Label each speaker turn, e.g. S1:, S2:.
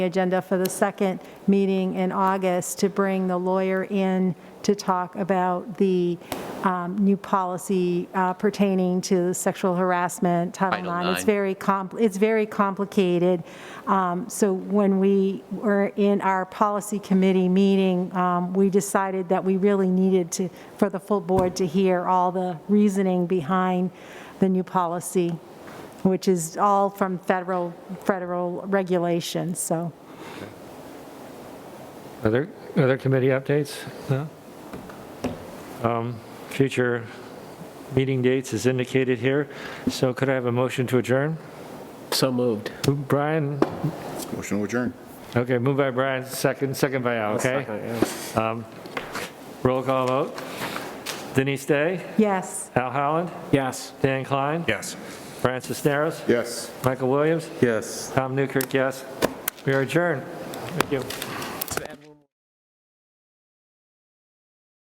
S1: the agenda for the second meeting in August to bring the lawyer in to talk about the um, new policy uh, pertaining to sexual harassment, Title
S2: Title
S1: IX. It's
S2: IX.
S1: very, com- it's very complicated. Um, So when we were in our policy committee meeting, um, we decided that we really needed to, for the full board to hear all the reasoning behind the new policy which is all from federal, federal regulations, so.
S3: Other, other committee updates? No? Um, Future meeting dates is indicated here, so could I have a motion to adjourn?
S4: So moved.
S3: Brian,
S5: Motion to adjourn.
S3: okay, moved by Brian, second, second by Al, okay? Roll call vote. Denise Day,
S1: Yes.
S3: Al Holland,
S4: Yes.
S3: Dan Klein,
S6: Yes.
S3: Brian Cisneros,
S5: Yes.
S3: Michael Williams,
S6: Yes.
S3: Tom Newkirk, yes. We are adjourned. Thank you.